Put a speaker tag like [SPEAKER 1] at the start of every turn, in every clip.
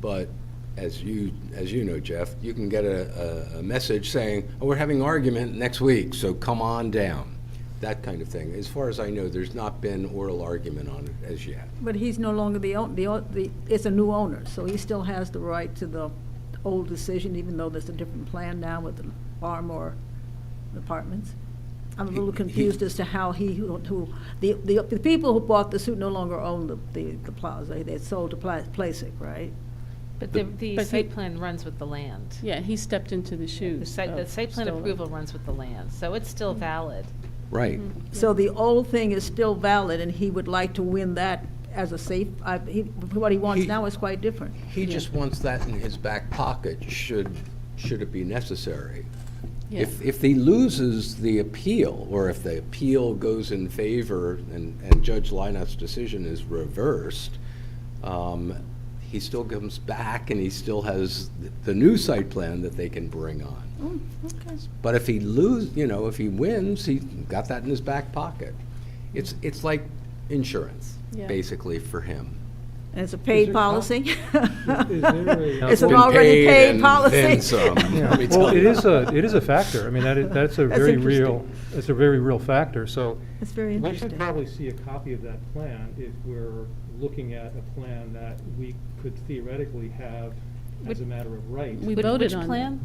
[SPEAKER 1] But as you, as you know, Jeff, you can get a, a, a message saying, oh, we're having argument next week, so come on down. That kind of thing. As far as I know, there's not been oral argument on it as yet.
[SPEAKER 2] But he's no longer the, own- the, o- the- it's a new owner, so he still has the right to the old decision, even though there's a different plan now with the Barmore Apartments. I'm a little confused as to how he, who- who, the, the the people who bought the suit no longer own the, the the plaza. They sold to Pla- Placic, right?
[SPEAKER 3] But the,
[SPEAKER 4] but
[SPEAKER 3] the
[SPEAKER 4] he-
[SPEAKER 3] site plan runs with the land.
[SPEAKER 4] Yeah, Oh, he stepped into the shoes.
[SPEAKER 3] The site, the
[SPEAKER 4] of
[SPEAKER 3] site plan
[SPEAKER 4] Stoller.
[SPEAKER 3] approval runs with the land, so it's still
[SPEAKER 4] Mm.
[SPEAKER 3] valid.
[SPEAKER 1] Right.
[SPEAKER 2] So the old thing is still valid, and he would like to win that as a safe, I, he, what he wants
[SPEAKER 1] He-
[SPEAKER 2] now is quite different.
[SPEAKER 1] He just wants that in his back pocket, should, should it be necessary.
[SPEAKER 4] Yeah.
[SPEAKER 1] If, if he loses the appeal, or if the appeal goes in favor and, and Judge Lineout's decision is reversed, um, he still comes back and he still has th- the new site plan that they can bring on.
[SPEAKER 4] Oh,
[SPEAKER 1] But if he lose, you know, if he wins, he got that in his back pocket. It's, it's like insurance,
[SPEAKER 4] Yeah.
[SPEAKER 1] basically, for him.
[SPEAKER 2] And it's a paid
[SPEAKER 5] there-
[SPEAKER 2] policy?
[SPEAKER 5] Is there a-
[SPEAKER 2] It's an
[SPEAKER 1] Been
[SPEAKER 2] already
[SPEAKER 1] paid
[SPEAKER 2] paid
[SPEAKER 1] and
[SPEAKER 2] policy.
[SPEAKER 1] then some. Let me
[SPEAKER 5] Yeah, well,
[SPEAKER 1] tell
[SPEAKER 5] it
[SPEAKER 1] you.
[SPEAKER 5] is a, it is a factor. I mean, that is, that's a
[SPEAKER 2] That's
[SPEAKER 5] very
[SPEAKER 2] interesting.
[SPEAKER 5] real, it's a very real factor, so.
[SPEAKER 2] It's very
[SPEAKER 5] We should
[SPEAKER 2] interesting.
[SPEAKER 5] probably see a copy of that plan if we're looking at a plan that we could theoretically have as a matter of right.
[SPEAKER 4] We
[SPEAKER 3] Which-
[SPEAKER 4] voted
[SPEAKER 3] which
[SPEAKER 4] on that.
[SPEAKER 3] plan?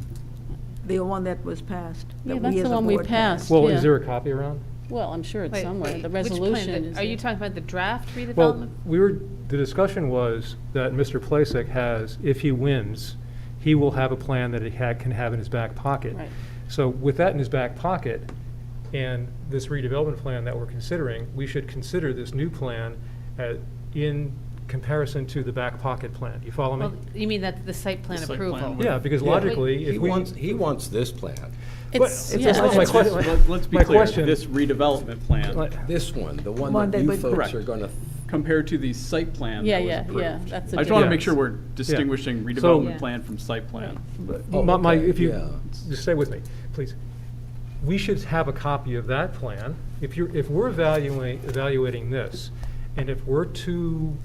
[SPEAKER 2] The one that was passed. that
[SPEAKER 4] Yeah,
[SPEAKER 2] we
[SPEAKER 4] that's
[SPEAKER 2] as
[SPEAKER 4] the
[SPEAKER 2] a
[SPEAKER 4] one we
[SPEAKER 2] board passed.
[SPEAKER 4] passed.
[SPEAKER 5] Well, is
[SPEAKER 4] yeah.
[SPEAKER 5] there a copy around?
[SPEAKER 4] Well, I'm sure it's
[SPEAKER 3] Wait,
[SPEAKER 4] somewhere.
[SPEAKER 3] wait,
[SPEAKER 4] The
[SPEAKER 3] which plan?
[SPEAKER 4] resolution
[SPEAKER 3] The-
[SPEAKER 4] is.
[SPEAKER 3] Are you talking about the draft
[SPEAKER 5] Well,
[SPEAKER 3] redevelopment?
[SPEAKER 5] we were, the discussion was that Mr. Plasek has, if he wins, he will have a plan that he had, can have in his back pocket.
[SPEAKER 4] Right.
[SPEAKER 5] So with that in his back pocket, and this redevelopment plan that we're considering, we should consider this new plan uh, in comparison to the back pocket plan. You follow me?
[SPEAKER 3] Well, You mean that the site plan
[SPEAKER 6] The site plan
[SPEAKER 3] approval?
[SPEAKER 6] would-
[SPEAKER 5] Yeah, because
[SPEAKER 1] Yeah.
[SPEAKER 5] logically,
[SPEAKER 1] He
[SPEAKER 5] if we.
[SPEAKER 1] wants, he wants this plan,
[SPEAKER 5] Well,
[SPEAKER 4] It's,
[SPEAKER 5] it's
[SPEAKER 4] yeah,
[SPEAKER 5] not my
[SPEAKER 4] it's-
[SPEAKER 5] question.
[SPEAKER 6] Let- Let's be
[SPEAKER 5] My
[SPEAKER 6] clear,
[SPEAKER 5] question-
[SPEAKER 6] this redevelopment plan
[SPEAKER 1] this one, the one
[SPEAKER 2] One
[SPEAKER 1] that
[SPEAKER 2] that
[SPEAKER 1] you
[SPEAKER 2] would-
[SPEAKER 1] folks
[SPEAKER 6] Correct.
[SPEAKER 1] are gonna,
[SPEAKER 6] compared to the site plan
[SPEAKER 4] yeah,
[SPEAKER 6] that was
[SPEAKER 4] yeah, yeah,
[SPEAKER 6] approved.
[SPEAKER 4] that's a
[SPEAKER 6] I just want to
[SPEAKER 5] Yeah.
[SPEAKER 6] make sure we're distinguishing redevelopment
[SPEAKER 3] So-
[SPEAKER 6] plan from site plan.
[SPEAKER 1] Oh,
[SPEAKER 5] My, my,
[SPEAKER 1] okay,
[SPEAKER 5] if you,
[SPEAKER 1] yeah.
[SPEAKER 5] just stay with me, please. We should have a copy of that plan. If you're, if we're evaluating, evaluating this, and if we're too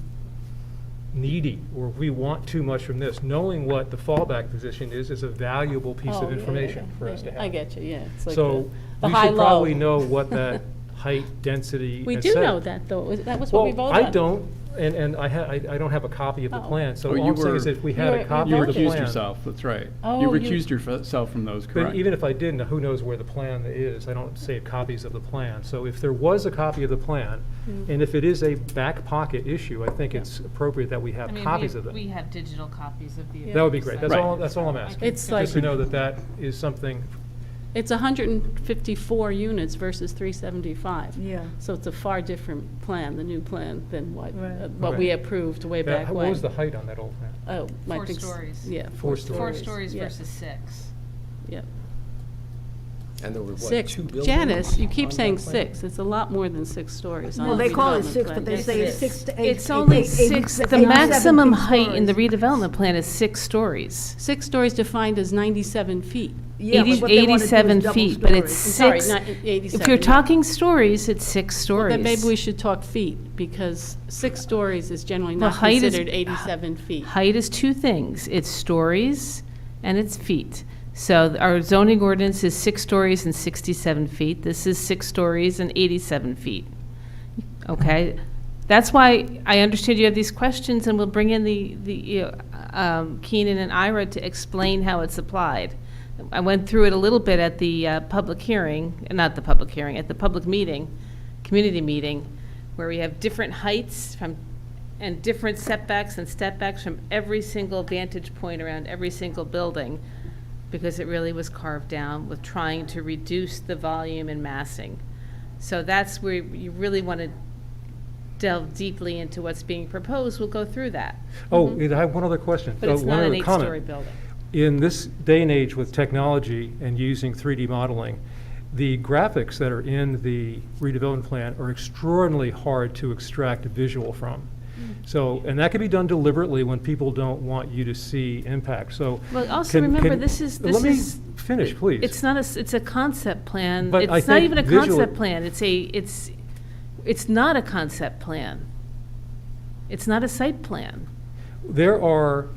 [SPEAKER 5] needy, or we want too much from this, knowing what the fallback position is, is a valuable piece
[SPEAKER 4] oh, yeah,
[SPEAKER 5] of
[SPEAKER 4] yeah,
[SPEAKER 5] information
[SPEAKER 4] yeah,
[SPEAKER 5] for us
[SPEAKER 4] yeah.
[SPEAKER 5] to have.
[SPEAKER 4] I get you, yeah. It's like
[SPEAKER 5] So,
[SPEAKER 4] the- the
[SPEAKER 5] we
[SPEAKER 4] high
[SPEAKER 5] should probably
[SPEAKER 4] low.
[SPEAKER 5] know what that height, density,
[SPEAKER 4] We
[SPEAKER 5] et
[SPEAKER 4] do
[SPEAKER 5] cetera.
[SPEAKER 4] know that, though. It was- That was what we voted
[SPEAKER 5] Well,
[SPEAKER 4] on.
[SPEAKER 5] I don't, and, and I ha, I, I don't have a copy of the
[SPEAKER 4] Oh.
[SPEAKER 5] plan, so
[SPEAKER 6] Oh,
[SPEAKER 5] all
[SPEAKER 6] you
[SPEAKER 5] I'm saying
[SPEAKER 6] were-
[SPEAKER 5] is if we
[SPEAKER 4] You
[SPEAKER 5] had
[SPEAKER 4] were-
[SPEAKER 5] a
[SPEAKER 4] you
[SPEAKER 5] copy
[SPEAKER 6] You
[SPEAKER 5] of the plan.
[SPEAKER 6] recused yourself, that's right. You
[SPEAKER 4] Oh, you-
[SPEAKER 6] recused yourself from those,
[SPEAKER 5] But
[SPEAKER 6] correct?
[SPEAKER 5] even if I didn't, who knows where the plan is? I don't save copies of the plan. So if there was a copy of the plan,
[SPEAKER 3] Mm.
[SPEAKER 5] and if it is a back pocket issue, I think it's appropriate that we
[SPEAKER 3] I
[SPEAKER 5] have
[SPEAKER 3] mean,
[SPEAKER 5] copies
[SPEAKER 3] we-
[SPEAKER 5] of
[SPEAKER 3] We
[SPEAKER 5] it.
[SPEAKER 3] have digital copies of the.
[SPEAKER 5] That would be great. That's
[SPEAKER 6] Right.
[SPEAKER 5] all, that's all I'm asking.
[SPEAKER 4] It's like-
[SPEAKER 5] Just to know that that is something,
[SPEAKER 4] It's 154 units versus 375.
[SPEAKER 2] Yeah.
[SPEAKER 4] So it's a far different plan, the new plan, than what,
[SPEAKER 2] Right.
[SPEAKER 4] uh, what we
[SPEAKER 5] Right.
[SPEAKER 4] approved way
[SPEAKER 5] Yeah,
[SPEAKER 4] back
[SPEAKER 5] how-
[SPEAKER 4] when.
[SPEAKER 5] what was the height on that old plan?
[SPEAKER 4] Oh, my
[SPEAKER 3] Four
[SPEAKER 4] thing's-
[SPEAKER 3] stories.
[SPEAKER 4] Yeah.
[SPEAKER 3] Four
[SPEAKER 5] Four stories.
[SPEAKER 3] stories
[SPEAKER 4] yeah,
[SPEAKER 3] versus six.
[SPEAKER 4] Yeah.
[SPEAKER 1] and there were what,
[SPEAKER 4] Six.
[SPEAKER 1] two buildings?
[SPEAKER 4] Janice, you
[SPEAKER 1] on
[SPEAKER 4] keep
[SPEAKER 1] that
[SPEAKER 4] saying
[SPEAKER 1] plan?
[SPEAKER 4] six. It's a lot more than six stories. on
[SPEAKER 2] Well,
[SPEAKER 4] the
[SPEAKER 2] they call it
[SPEAKER 4] redevelopment
[SPEAKER 2] six, but
[SPEAKER 4] plan.
[SPEAKER 2] they
[SPEAKER 4] Yes,
[SPEAKER 2] say
[SPEAKER 4] it
[SPEAKER 2] it's
[SPEAKER 4] is.
[SPEAKER 2] six to eight.
[SPEAKER 3] It's only
[SPEAKER 2] eight-
[SPEAKER 3] six,
[SPEAKER 2] eight-
[SPEAKER 3] the
[SPEAKER 2] eight-
[SPEAKER 3] maximum
[SPEAKER 2] eight-
[SPEAKER 3] height in the
[SPEAKER 2] stories.
[SPEAKER 3] redevelopment plan is six stories.
[SPEAKER 4] Six stories defined as 97 feet.
[SPEAKER 2] Yeah, but
[SPEAKER 3] Eighty-
[SPEAKER 2] what they wanna do is
[SPEAKER 3] 87
[SPEAKER 2] double
[SPEAKER 3] feet, but it's
[SPEAKER 2] stories.
[SPEAKER 4] Sorry,
[SPEAKER 3] Six.
[SPEAKER 4] not 87.
[SPEAKER 3] If you're
[SPEAKER 4] yeah.
[SPEAKER 3] talking stories, it's six stories.
[SPEAKER 4] Then maybe we should talk feet, because six stories is generally
[SPEAKER 3] Well,
[SPEAKER 4] not
[SPEAKER 3] height is-
[SPEAKER 4] considered 87 feet.
[SPEAKER 3] Height is two things, it's stories and it's feet. So th- our zoning ordinance is six stories and 67 feet, this is six stories and 87 feet. Okay, that's why I understand you have these questions, and we'll bring in the, the, you know, um, Keenan and Ira to explain how it's applied. I went through it a little bit at the uh, public hearing, not the public hearing, at the public meeting, community meeting, where we have different heights from, and different setbacks and stepbacks from every single vantage point around every single building, because it really was carved down with trying to reduce the volume and massing. So that's where you really want to delve deeply into what's being proposed. We'll go through that.
[SPEAKER 5] Oh, I have one other question.
[SPEAKER 3] Mm-hmm. But
[SPEAKER 5] Uh,
[SPEAKER 3] it's
[SPEAKER 5] one
[SPEAKER 3] not an
[SPEAKER 5] other comment.
[SPEAKER 3] eight-story building.
[SPEAKER 5] In this day and age with technology and using 3D modeling, the graphics that are in the redevelopment plan are extraordinarily hard to extract a visual from.
[SPEAKER 3] Mm.
[SPEAKER 5] So, and that can be done deliberately when people don't want you to see impact, so.
[SPEAKER 3] Well, also
[SPEAKER 5] can-
[SPEAKER 3] remember,
[SPEAKER 5] can-
[SPEAKER 3] this is- this
[SPEAKER 5] Let me
[SPEAKER 3] is-
[SPEAKER 5] finish, please.
[SPEAKER 3] It's not a, s- it's a concept plan.
[SPEAKER 5] But I
[SPEAKER 3] It's not
[SPEAKER 5] think
[SPEAKER 3] even a
[SPEAKER 5] visually-
[SPEAKER 3] concept plan. It's a, it's, it's not a concept plan. It's not a site plan.
[SPEAKER 5] There are